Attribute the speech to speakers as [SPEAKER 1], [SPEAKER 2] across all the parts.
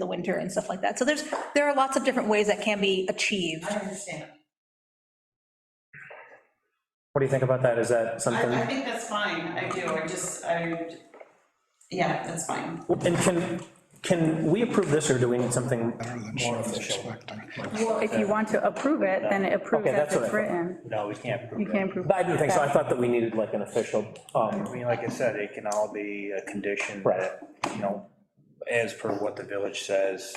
[SPEAKER 1] the winter and stuff like that. So there's, there are lots of different ways that can be achieved.
[SPEAKER 2] I understand.
[SPEAKER 3] What do you think about that? Is that
[SPEAKER 2] I, I
[SPEAKER 3] something,
[SPEAKER 2] think that's fine, I do, I just, I, yeah, that's fine.
[SPEAKER 3] and can, can we approve this, or do we need something more official?
[SPEAKER 4] Well, if you want to approve it, then approve
[SPEAKER 3] Okay,
[SPEAKER 4] it
[SPEAKER 3] that's
[SPEAKER 4] as
[SPEAKER 3] what I
[SPEAKER 4] it's
[SPEAKER 3] thought.
[SPEAKER 4] written.
[SPEAKER 5] No, we can't
[SPEAKER 4] You
[SPEAKER 5] prove it.
[SPEAKER 4] can't approve.
[SPEAKER 3] But I didn't think so, I thought that we needed like an official,
[SPEAKER 5] I
[SPEAKER 3] um,
[SPEAKER 5] mean, like I said, it can all be a condition
[SPEAKER 3] Right.
[SPEAKER 5] that, you know, as per what the village says,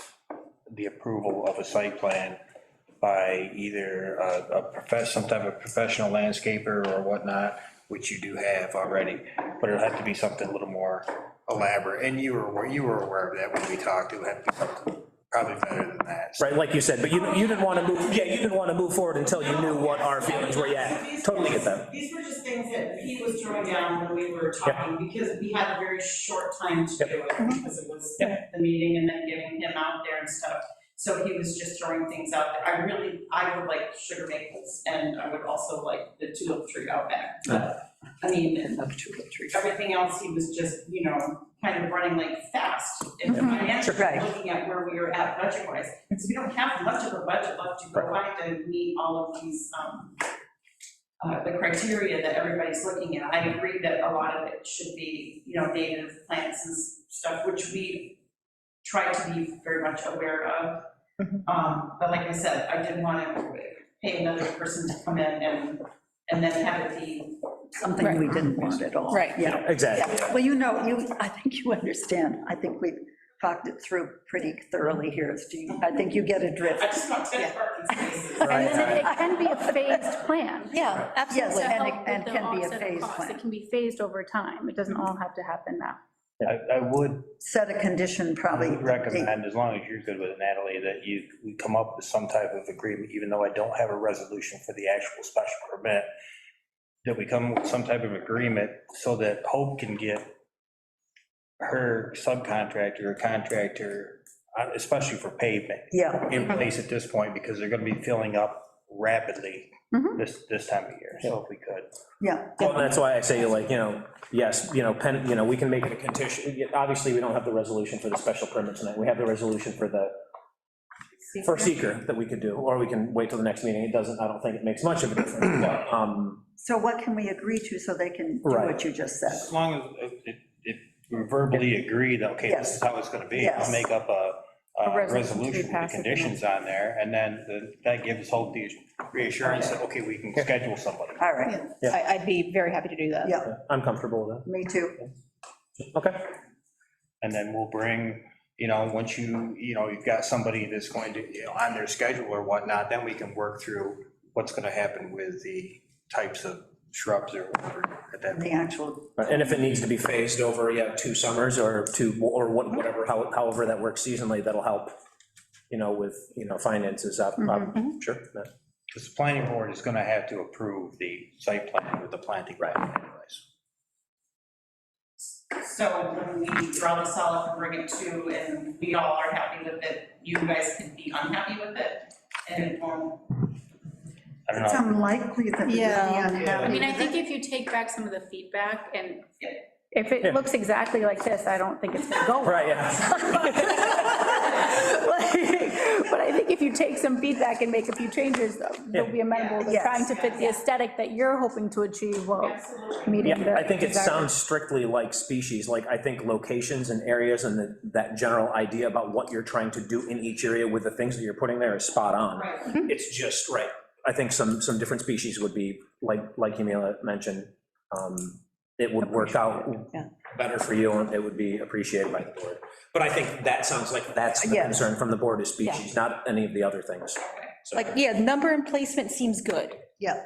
[SPEAKER 5] the approval of a site plan by either a a profess, some type of professional landscaper or whatnot, which you do have already, but it'll have to be something a little more elaborate, and you were, aware- you were aware of that when we talked, it would have to be something probably better than that.
[SPEAKER 3] right, like you said, but you, you didn't want to move, yeah, you didn't want to move forward until you knew what our feelings were, yeah, totally get that.
[SPEAKER 2] These were just things that he was throwing down when we were talking, because we had a very short time to do it, because it was the meeting and then getting him out there and stuff. So he was just throwing things out there. I really, I would like sugar maples, and I would also like the tulip tree out back. But, I mean, and everything else, he was just, you know, kind of running like fast. And
[SPEAKER 4] Mhm.
[SPEAKER 2] I am
[SPEAKER 1] Sure, right.
[SPEAKER 2] looking at where we are at budget-wise, because we don't have much of a budget left to go by to meet all of these, um, uh, the criteria that everybody's looking at. I agree that a lot of it should be, you know, native plants and s- stuff, which we try to be very much aware of. Um, but like I said, I didn't want to pay another person to come in and, and then have it be
[SPEAKER 6] something we didn't want at all.
[SPEAKER 1] Right.
[SPEAKER 6] Yeah.
[SPEAKER 3] Exactly,
[SPEAKER 6] Yeah. Well, you know, you, I think you understand. I think we've talked it through pretty thoroughly here, Steve. I think you get a drift.
[SPEAKER 2] I just want ten parking spaces.
[SPEAKER 4] And
[SPEAKER 3] right,
[SPEAKER 4] then it can be a phased plan.
[SPEAKER 1] Yeah,
[SPEAKER 6] Yes,
[SPEAKER 1] absolutely.
[SPEAKER 6] and it-
[SPEAKER 4] Help with
[SPEAKER 6] and
[SPEAKER 4] the
[SPEAKER 6] can be a
[SPEAKER 4] offset of
[SPEAKER 6] phased
[SPEAKER 4] costs.
[SPEAKER 6] plan.
[SPEAKER 4] It can be phased over time. It doesn't all have to happen now.
[SPEAKER 5] I, I would
[SPEAKER 6] Set a condition probably.
[SPEAKER 5] would recommend, as long as you're good with it, Natalie, that you, we come up with some type of agreement, even though I don't have a resolution for the actual special permit, that we come with some type of agreement so that Hope can get her subcontractor or contractor, uh, especially for pavement,
[SPEAKER 6] Yeah,
[SPEAKER 5] in place at this point, because they're gonna be filling up rapidly
[SPEAKER 4] Mhm.
[SPEAKER 5] this, this time of year, so if we could.
[SPEAKER 6] yeah.
[SPEAKER 3] well, and that's why I say, like, you know, yes, you know, pen, you know, we can make it a condition, yeah, obviously, we don't have the resolution for the special permit tonight, we have the resolution for the, for seeker that we could do, or we can wait till the next meeting, it doesn't, I don't think it makes much of a difference, but, um,
[SPEAKER 6] So what can we agree to so they can do what
[SPEAKER 3] Right.
[SPEAKER 6] you just said?
[SPEAKER 5] As long as it, it we verbally agree that, okay, this is how it's gonna be, I'll
[SPEAKER 6] Yes.
[SPEAKER 5] make up a,
[SPEAKER 4] A
[SPEAKER 5] a
[SPEAKER 4] resolution to
[SPEAKER 5] resolution with
[SPEAKER 4] pass
[SPEAKER 5] the
[SPEAKER 4] it.
[SPEAKER 5] conditions on there, and then the- that gives hope the reassurance that, okay, we can schedule somebody.
[SPEAKER 6] All right,
[SPEAKER 1] I, I'd be very happy to do that.
[SPEAKER 6] yeah,
[SPEAKER 3] I'm comfortable with
[SPEAKER 6] me too.
[SPEAKER 3] that, okay?
[SPEAKER 5] And then we'll bring, you know, once you, you know, you've got somebody that's going to, you know, on their schedule or whatnot, then we can work through what's gonna happen with the types of shrubs or whatever at that
[SPEAKER 6] The
[SPEAKER 5] point.
[SPEAKER 6] actual,
[SPEAKER 3] And if it needs to be phased over, yeah, two summers or two, or what- whatever, how- however that works seasonally, that'll help, you know, with, you know, finances up, up, sure. yeah.
[SPEAKER 5] Because the planning board is gonna have to approve the site plan with the planting plan anyways.
[SPEAKER 2] So when we draw this all up and bring it to, and we all are happy with it, you guys can be unhappy with it, and it won't.
[SPEAKER 5] I don't know.
[SPEAKER 6] it's unlikely that we would be
[SPEAKER 1] Yeah.
[SPEAKER 6] unhappy.
[SPEAKER 4] I mean, I think
[SPEAKER 6] with it.
[SPEAKER 4] if you take back some of the feedback and
[SPEAKER 2] Yeah.
[SPEAKER 4] if
[SPEAKER 3] Yeah.
[SPEAKER 4] it looks exactly like this, I don't think it's going to go. well.
[SPEAKER 3] Right, yeah,
[SPEAKER 4] Like, But I think if you take some feedback and make a few changes, uh, they'll be amenable to
[SPEAKER 6] Yes.
[SPEAKER 4] trying to fit the aesthetic that you're hoping to achieve while
[SPEAKER 2] Absolutely.
[SPEAKER 4] meeting the.
[SPEAKER 3] yeah, I think it
[SPEAKER 4] desired-
[SPEAKER 3] sounds strictly like species, like, I think locations and areas and the- that general idea about what you're trying to do in each area with the things that you're putting there is spot on.
[SPEAKER 2] Right,
[SPEAKER 1] Mm-hmm.
[SPEAKER 3] It's just, right, I think some, some different species would be, like, like Yumila mentioned, um, it would work out
[SPEAKER 1] Yeah.
[SPEAKER 3] better for you, and it would be appreciated by the board. But I think that sounds like that's the
[SPEAKER 6] Yes.
[SPEAKER 3] concern from the board is species, not any of the other things. So-
[SPEAKER 1] Like, yeah, number and placement seems good.
[SPEAKER 6] Yeah,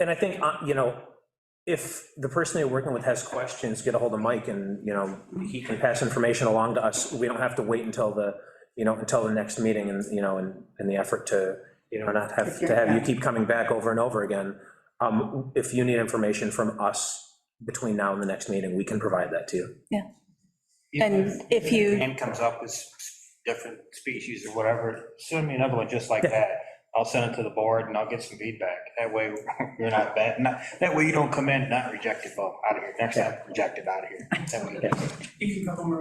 [SPEAKER 3] And I think, uh, you know, if the person you're working with has questions, get a hold of Mike and, you know, he can pass information along to us. We don't have to wait until the, you know, until the next meeting and, you know, in, in the effort to, you know, not have, to have you keep coming back over and over again. Um, If you need information from us between now and the next meeting, we can provide that to you.
[SPEAKER 1] And if you-
[SPEAKER 5] Name comes up with different species or whatever, send me another one just like that. I'll send it to the board and I'll get some feedback. That way, you're not bad, not, that way you don't come in not rejected, well, out of here, next time, rejected out of here. That way you get-
[SPEAKER 2] you can go home